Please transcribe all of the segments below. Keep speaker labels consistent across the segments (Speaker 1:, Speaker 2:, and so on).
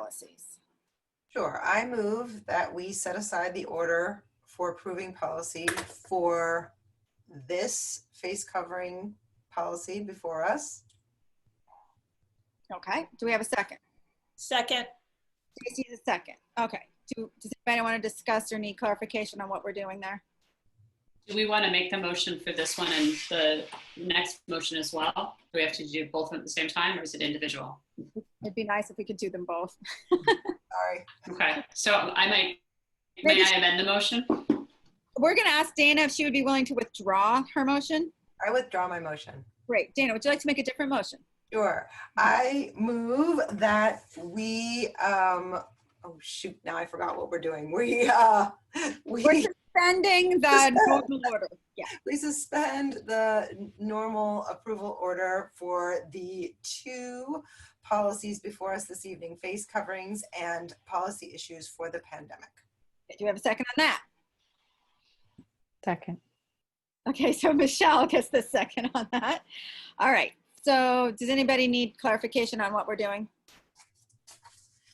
Speaker 1: policies.
Speaker 2: Sure, I move that we set aside the order for approving policy for this face covering policy before us.
Speaker 1: Okay, do we have a second?
Speaker 3: Second,
Speaker 1: Stacy's a second. Okay, do, does anybody want to discuss or need clarification on what we're doing there?
Speaker 4: Do we want to make the motion for this one and the next motion as well? Do we have to do both at the same time or is it individual?
Speaker 1: It'd be nice if we could do them both.
Speaker 2: Sorry,
Speaker 4: Okay, so I might,
Speaker 1: Maybe-
Speaker 4: may I amend the motion?
Speaker 1: We're going to ask Dana if she would be willing to withdraw her motion.
Speaker 2: I withdraw my motion.
Speaker 1: Great. Dana, would you like to make a different motion?
Speaker 2: Sure, I move that we, um, oh shoot, now I forgot what we're doing. We, uh,
Speaker 1: We're
Speaker 2: we,
Speaker 1: suspending the normal order. Yeah.
Speaker 2: we suspend the n- normal approval order for the two policies before us this evening, face coverings and policy issues for the pandemic.
Speaker 1: Do you have a second on that?
Speaker 5: Second.
Speaker 1: Okay, so Michelle gets the second on that. All right. So does anybody need clarification on what we're doing?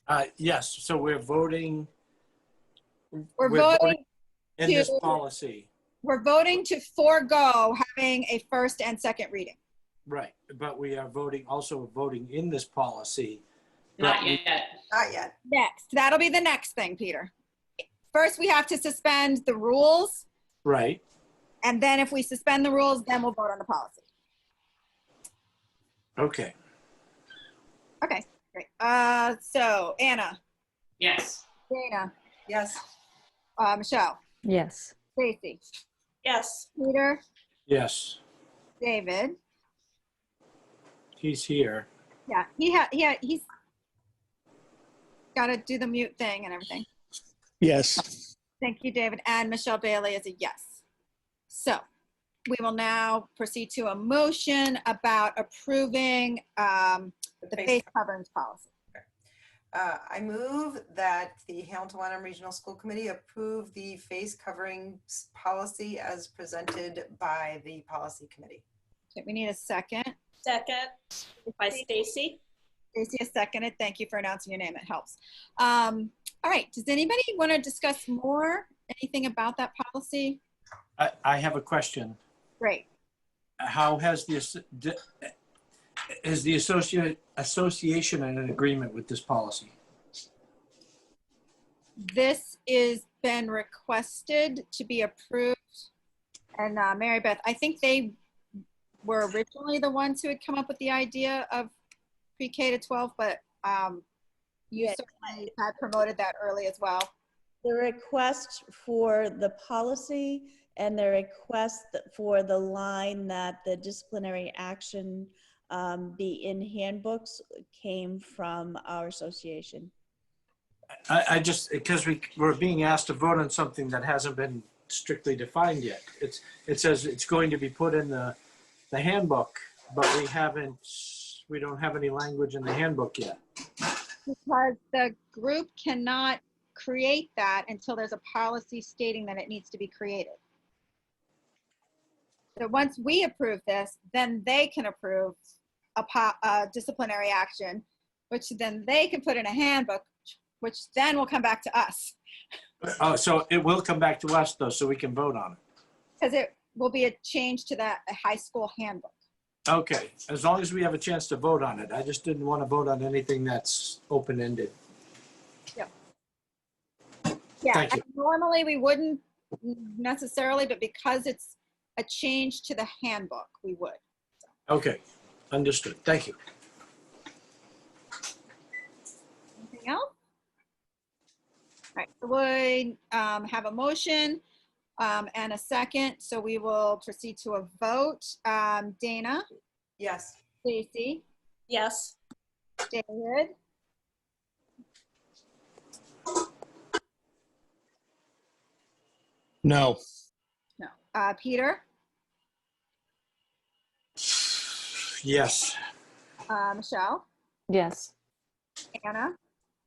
Speaker 6: Uh, Yes, so we're voting
Speaker 1: We're
Speaker 6: We're
Speaker 1: voting,
Speaker 6: voting- in this
Speaker 1: To-
Speaker 6: policy.
Speaker 1: we're voting to forego having a first and second reading.
Speaker 6: Right, but we are voting, also voting in this policy.
Speaker 4: Not yet.
Speaker 2: Not yet.
Speaker 1: Next, that'll be the next thing, Peter. First, we have to suspend the rules,
Speaker 6: Right,
Speaker 1: and then if we suspend the rules, then we'll vote on the policy.
Speaker 6: okay.
Speaker 1: Okay, great. Uh, so Anna,
Speaker 4: Yes.
Speaker 1: Dana,
Speaker 2: Yes.
Speaker 1: uh, Michelle,
Speaker 5: Yes.
Speaker 1: Stacy,
Speaker 3: yes,
Speaker 1: Peter,
Speaker 6: Yes,
Speaker 1: David.
Speaker 6: he's here.
Speaker 1: Yeah, he had, he had, he's got to do the mute thing and everything.
Speaker 7: Yes,
Speaker 1: Thank you, David. And Michelle Bailey is a yes. So we will now proceed to a motion about approving um, the
Speaker 2: Face-
Speaker 1: face coverings policy.
Speaker 2: Uh, I move that the Hamilton Wenham Regional School Committee approve the face coverings policy as presented by the policy committee.
Speaker 1: Okay, We need a second.
Speaker 3: second by Stacy.
Speaker 1: Stacy has seconded. Thank you for announcing your name. It helps. Um, all right. Does anybody want to discuss more, anything about that policy?
Speaker 6: I, I have a question.
Speaker 1: Great.
Speaker 6: How has the, as- d- is the associate, association in an agreement with this policy?
Speaker 1: This is been requested to be approved. And uh, Mary Beth, I think they were originally the ones who had come up with the idea of pre-K to 12, but um, you
Speaker 8: Yes.
Speaker 1: certainly had promoted that early as well.
Speaker 8: The request for the policy and the request for the line that the disciplinary action um, be in handbooks came from our association.
Speaker 6: I, I just, because we, we're being asked to vote on something that hasn't been strictly defined yet. It's, it says it's going to be put in the, the handbook, but we haven't, we don't have any language in the handbook yet.
Speaker 1: Because the group cannot create that until there's a policy stating that it needs to be created. So once we approve this, then they can approve a po- a disciplinary action, which then they can put in a handbook, which then will come back to us.
Speaker 6: Oh, so it will come back to us though, so we can vote on it.
Speaker 1: Because it will be a change to that high school handbook.
Speaker 6: Okay, as long as we have a chance to vote on it. I just didn't want to vote on anything that's open-ended.
Speaker 1: Yeah,
Speaker 6: Thank you.
Speaker 1: and normally we wouldn't necessarily, but because it's a change to the handbook, we would.
Speaker 6: Okay, understood. Thank you.
Speaker 1: Anything else? All right, so we um, have a motion um, and a second, so we will proceed to a vote. Um, Dana,
Speaker 2: Yes.
Speaker 1: Stacy,
Speaker 3: Yes,
Speaker 1: David.
Speaker 7: no,
Speaker 1: No. Uh, Peter,
Speaker 6: Yes,
Speaker 1: uh, Michelle,
Speaker 5: Yes.
Speaker 1: Anna,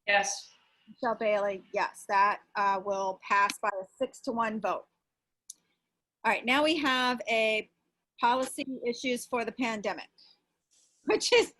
Speaker 4: Yes.
Speaker 1: Michelle Bailey, yes, that uh, will pass by a six to one vote. All right, now we have a policy issues for the pandemic, which is